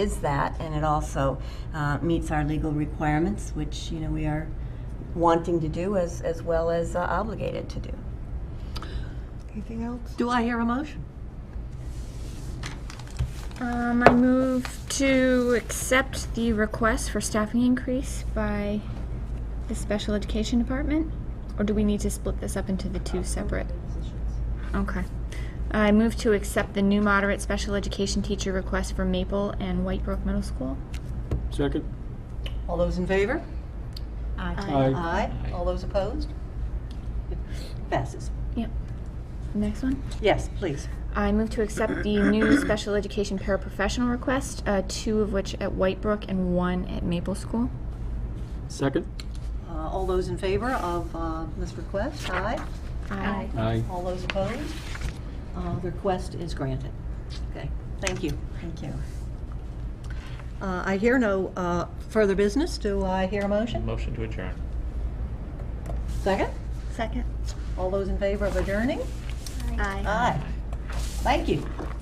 is that, and it also uh, meets our legal requirements, which, you know, we are wanting to do as, as well as uh, obligated to do. Anything else? Do I hear a motion? Um, I move to accept the request for staffing increase by the special education department, or do we need to split this up into the two separate? Okay. I move to accept the new moderate special education teacher request for Maple and Whitebrook Middle School. Second? All those in favor? Aye. Aye. All those opposed? It Passes. Yep. Next one. Yes, please. I move to accept the new special education paraprofessional request, uh, two of which at Whitebrook and one at Maple School. Second? Uh, All those in favor of uh, this request? Aye. Aye. Aye. All those opposed? Uh, The request is granted. Okay, thank you. Thank you. Uh, I hear no uh, further business. Do I hear a motion? Motion to adjourn. Second? Second. All those in favor of adjourning? Aye. Aye. Thank you.